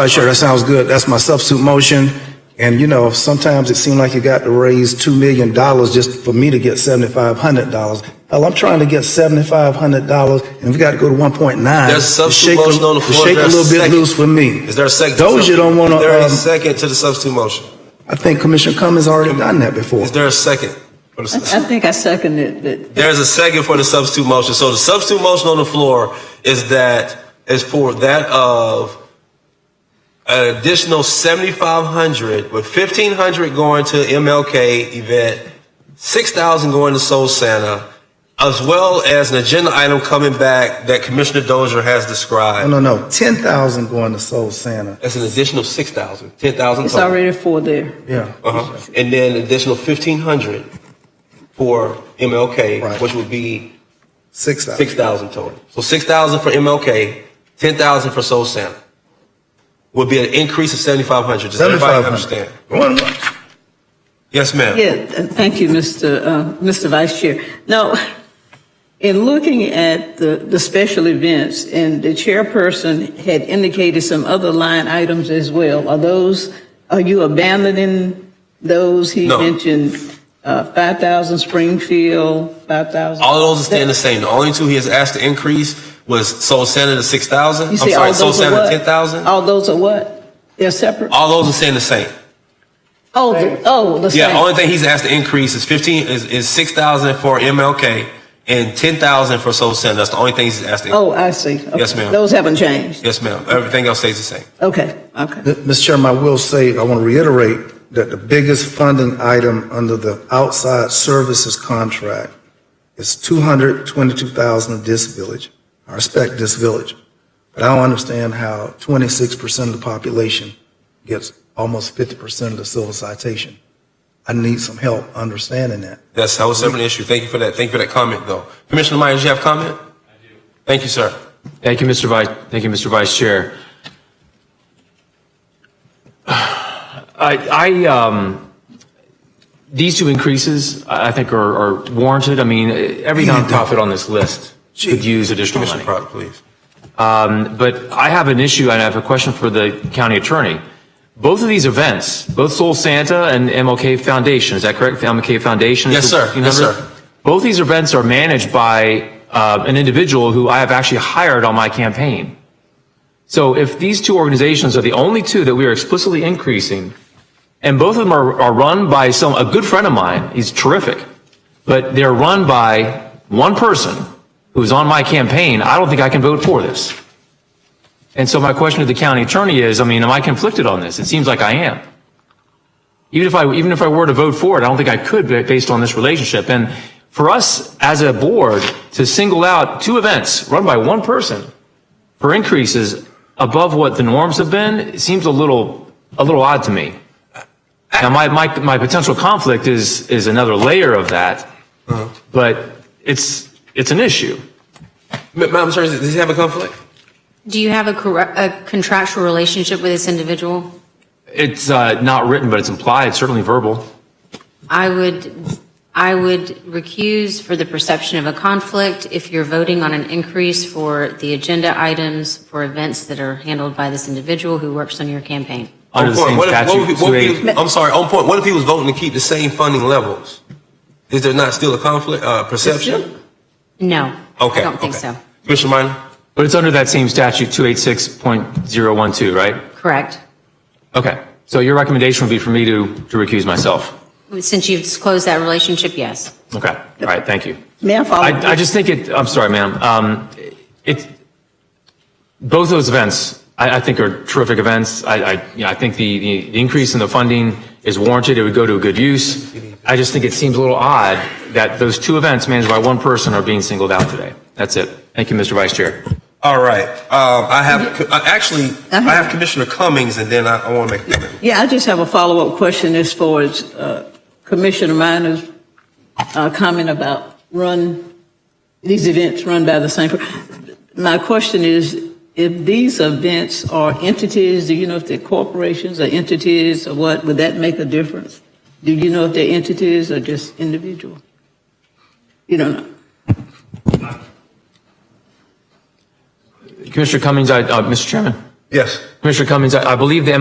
Uh, Sure, that sounds good. That's my substitute motion. And, you know, sometimes it seemed like you got to raise $2 million just for me to get $7,500. Hell, I'm trying to get $7,500, and we got to go to 1.9. There's a substitute Shake a- motion on the floor. Shake a There's a little bit second. loose with me. Is there a second? Those you don't want Is there a to, second to the substitute motion? I think Commissioner Cummings already done that before. Is there a second? for the- I think I seconded it. There's a second for the substitute motion. So the substitute motion on the floor is that, is for that of an additional seventy-five hundred, with fifteen hundred going to MLK event, six thousand going to Soul Santa, as well as an agenda item coming back that Commissioner Dozier has No, described. no, no, 10,000 going to Soul Santa. That's an additional six thousand, ten thousand It's total. already four there. Yeah. Uh-huh. And then additional fifteen hundred for MLK, Right. which would be 6,000. six thousand total. So six thousand for MLK, ten thousand for Soul Santa. Would be an increase of seventy-five hundred. Does everybody 7,500. understand? Going once. Yes, ma'am. Yeah, uh, thank you, Mr. uh, Mr. Vice Chair. Now, in looking at the, the special events, and the chairperson had indicated some other line items as well, are those, are you abandoning those? He No. mentioned uh, 5,000 Springfield, 5,000. All of those are staying the same. The only two he has asked to increase was Soul Santa to six thousand. You I'm say all sorry, Soul those are Santa what? ten thousand. All those are what? They're separate? All those are staying the same. Oh, the- oh, the Yeah, same. only thing he's asked to increase is fifteen is, is six thousand for MLK and ten thousand for Soul Santa. That's the only thing he's asked to. Oh, I see. Yes, Okay. ma'am. Those haven't changed? Yes, ma'am. Everything else stays the same. Okay, okay. Mr. Chairman, I will say, I want to reiterate that the biggest funding item under the outside services contract is two hundred twenty-two thousand of this village. I respect this village, but I don't understand how twenty-six percent of the population gets almost fifty percent of the civil citation. I need some help understanding that. That's that was an issue. Thank you for that. Thank you for that comment, though. Commissioner Myers, you have comment? I do. Thank you, sir. Thank you, Mr. Vice, thank you, Mr. Vice Chair. I, I, um, these two increases, I I think are are warranted. I mean, every nonprofit on this list could use additional money. Commissioner Pratt, please. But I have an issue and I have a question for the county attorney. Both of these events, both Soul Santa and MLK Foundation, is that correct? The MLK Foundation? Yes, is the sir. Yes, 1,500? sir. Both these events are managed by uh, an individual who I have actually hired on my campaign. So if these two organizations are the only two that we are explicitly increasing, and both of them are, are run by some, a good friend of mine, he's terrific, but they're run by one person who's on my campaign, I don't think I can vote for this. And so my question to the county attorney is, I mean, am I conflicted on this? It seems like I am. Even if I, even if I were to vote for it, I don't think I could ba- based on this relationship. And for us as a board to single out two events run by one person for increases above what the norms have been, it seems a little, a little odd to me. Now, my, my, my potential conflict is, is another layer of that, but it's, it's an issue. Ma- Madam Attorney, does he have a conflict? Do you have a corru- a contractual relationship with this individual? It's, uh, not written, but it's implied, certainly verbal. I would, I would recuse for the perception of a conflict if you're voting on an increase for the agenda items for events that are handled by this individual who works on your campaign. Under On the point, same Oh, what if- what statute, if- what if he- 280. I'm sorry, on point, what if he was voting to keep the same funding levels? Is there not still a conflict, uh, perception? No. Okay. I don't think okay. so. Commissioner Minor? But it's under that same statute, 286.012, right? Correct. Okay. So your recommendation would be for me to, to recuse myself? Since you've disclosed that relationship, yes. Okay. All right, thank you. May I follow? Um, I, I just think it, I'm sorry, ma'am. Um, it, both those events, I, I think are terrific events. I, I, you know, I think the, the increase in the funding is warranted. It would go to a good use. I just think it seems a little odd that those two events managed by one person are being singled out today. That's it. Thank you, Mr. Vice Chair. All right, um, I have, I actually, I have Commissioner Cummings, and then I, I want to make a comment. Yeah, I just have a follow-up question as far as uh, Commissioner Minor's uh, comment about run, these events run by the same. per- My question is, if these events are entities, do you know if they're corporations or entities or what, would that make a difference? Do you know if they're entities or just individual? You don't know. Commissioner Cummings, I, uh, Mr. Chairman? Yes. Commissioner Cummings, I I believe the